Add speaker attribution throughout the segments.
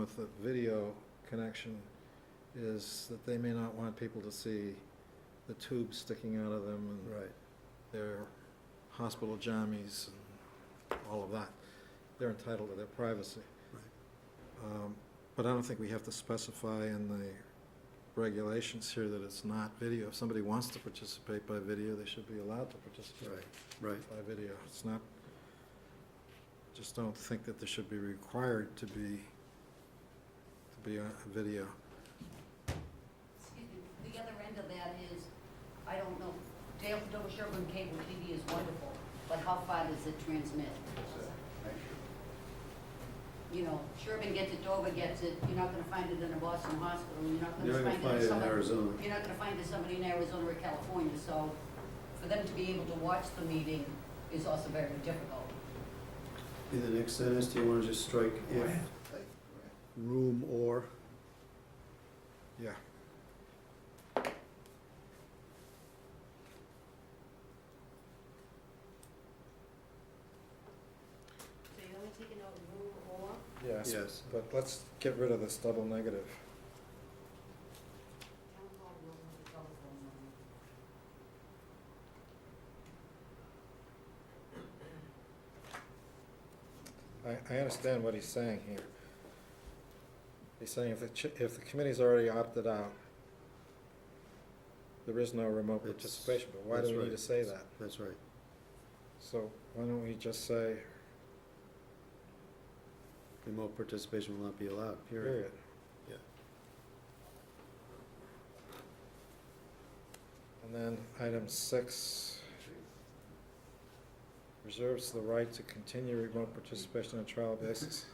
Speaker 1: with the video connection is that they may not want people to see the tubes sticking out of them and
Speaker 2: Right.
Speaker 1: their hospital jammies and all of that. They're entitled to their privacy. Um, But I don't think we have to specify in the regulations here that it's not video. If somebody wants to participate by video, they should be allowed to participate
Speaker 2: Right, right.
Speaker 1: by video. It's not, just don't think that they should be required to be, to be on video.
Speaker 3: Excuse me, the other end of that is, I don't know, Dale, Dover Sherburne Cable TV is wonderful, but how far does it transmit? You know, Sherburne gets it, Dover gets it, you're not gonna find it in a Boston hospital, you're not
Speaker 2: You're
Speaker 3: gonna find it in somebody.
Speaker 2: Arizona.
Speaker 3: You're not gonna find it somebody in Arizona or California, so for them to be able to watch the meeting is also very difficult.
Speaker 2: In the next sentence, do you want to just strike if, room or?
Speaker 1: Yeah.
Speaker 3: So you only taking out room or?
Speaker 1: Yes.
Speaker 2: Yes.
Speaker 1: But let's get rid of this double negative.
Speaker 3: Town hall room with a telephone number.
Speaker 1: I, I understand what he's saying here. He's saying if the, ch- if the committee's already opted out, there is no remote
Speaker 2: It's-
Speaker 1: participation, but why do
Speaker 2: that's
Speaker 1: we need
Speaker 2: right.
Speaker 1: to say that?
Speaker 2: That's right.
Speaker 1: So why don't we just say,
Speaker 2: Remote participation will not be allowed, period.
Speaker 1: period?
Speaker 2: Yeah.
Speaker 1: And then item six reserves the right to continue remote participation on a trial basis.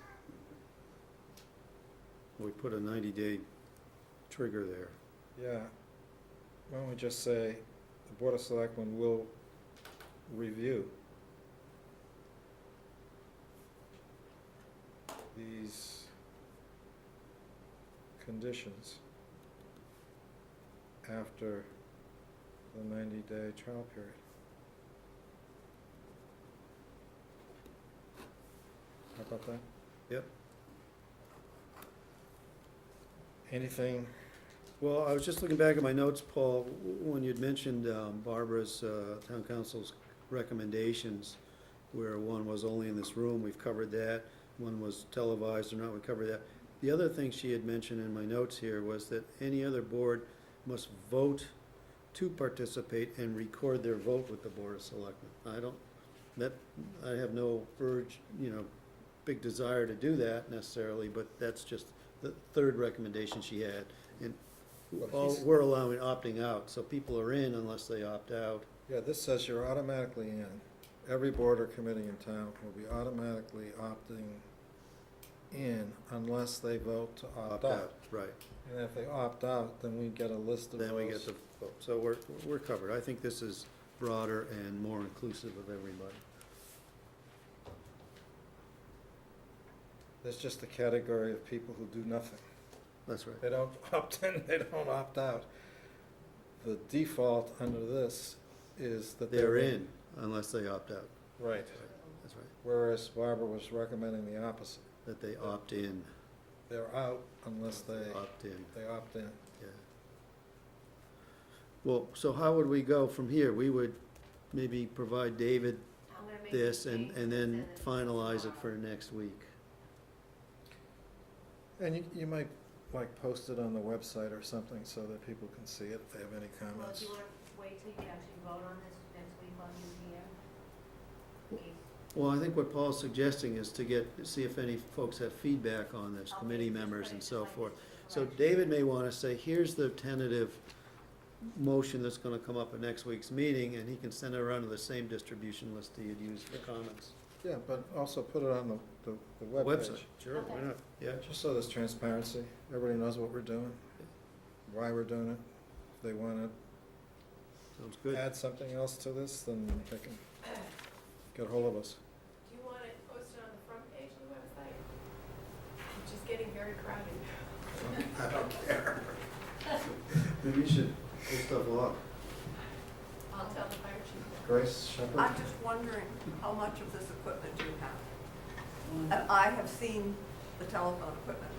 Speaker 2: We put a ninety-day trigger there.
Speaker 1: Yeah, why don't we just say, the Board of Selectmen will review these conditions after the ninety-day trial period. How about that?
Speaker 2: Yep.
Speaker 1: Anything
Speaker 2: Well, I was just looking back at my notes, Paul, w- when you'd mentioned um, Barbara's, uh, town council's recommendations, where one was only in this room, we've covered that, one was televised or not, we covered that. The other thing she had mentioned in my notes here was that any other board must vote to participate and record their vote with the Board of Selectmen. I don't, that, I have no urge, you know, big desire to do that necessarily, but that's just the third recommendation she had. And
Speaker 1: Well,
Speaker 2: all,
Speaker 1: he's-
Speaker 2: we're allowing opting out, so people are in unless they opt out.
Speaker 1: Yeah, this says you're automatically in. Every board or committee in town will be automatically opting in unless they vote to opt out.
Speaker 2: Right,
Speaker 1: And if they opt out, then we get a list of those.
Speaker 2: then we get the vote. So we're, we're covered. I think this is broader and more inclusive of everybody.
Speaker 1: There's just a category of people who do nothing.
Speaker 2: That's right.
Speaker 1: They don't opt in, they don't opt out. The default under this is that
Speaker 2: They're in unless they opt out.
Speaker 1: Right,
Speaker 2: That's right.
Speaker 1: whereas Barbara was recommending the opposite.
Speaker 2: That they opt in,
Speaker 1: They're out unless they,
Speaker 2: opt in,
Speaker 1: they opt in.
Speaker 2: yeah. Well, so how would we go from here? We would maybe provide David
Speaker 4: I'm gonna make
Speaker 2: this
Speaker 4: these
Speaker 2: and,
Speaker 4: changes
Speaker 2: and then
Speaker 4: it's
Speaker 2: finalize it
Speaker 4: tomorrow.
Speaker 2: for next week.
Speaker 1: And you, you might like post it on the website or something so that people can see it if they have any
Speaker 4: Well, do
Speaker 1: comments.
Speaker 4: you wanna wait till you actually vote on this next week while you're here? In case-
Speaker 2: Well, I think what Paul's suggesting is to get, see if any folks have feedback on this,
Speaker 4: I'll
Speaker 2: committee
Speaker 4: make this
Speaker 2: members
Speaker 4: right,
Speaker 2: and
Speaker 4: just
Speaker 2: so
Speaker 4: like
Speaker 2: forth.
Speaker 4: this is
Speaker 2: So
Speaker 4: correct.
Speaker 2: David may want to say, here's the tentative motion that's going to come up at next week's meeting, and he can send it around to the same distribution list that you'd use for comments.
Speaker 1: Yeah, but also put it on the, the, the
Speaker 2: Website,
Speaker 1: webpage.
Speaker 2: sure, why
Speaker 4: Okay.
Speaker 2: not? Yeah,
Speaker 1: Just so there's transparency, everybody knows what we're doing, why we're doing it. If they wanna
Speaker 2: sounds good.
Speaker 1: add something else to this, then they can get hold of us.
Speaker 5: Do you want it posted on the front page of the website? It's just getting very crowded.
Speaker 2: I don't care. Maybe you should pull stuff off.
Speaker 5: I'll tell the fire chief.
Speaker 1: Grace Shepherd?
Speaker 6: I'm just wondering how much of this equipment do you have?
Speaker 3: One,
Speaker 6: And I have seen the telephone equipment.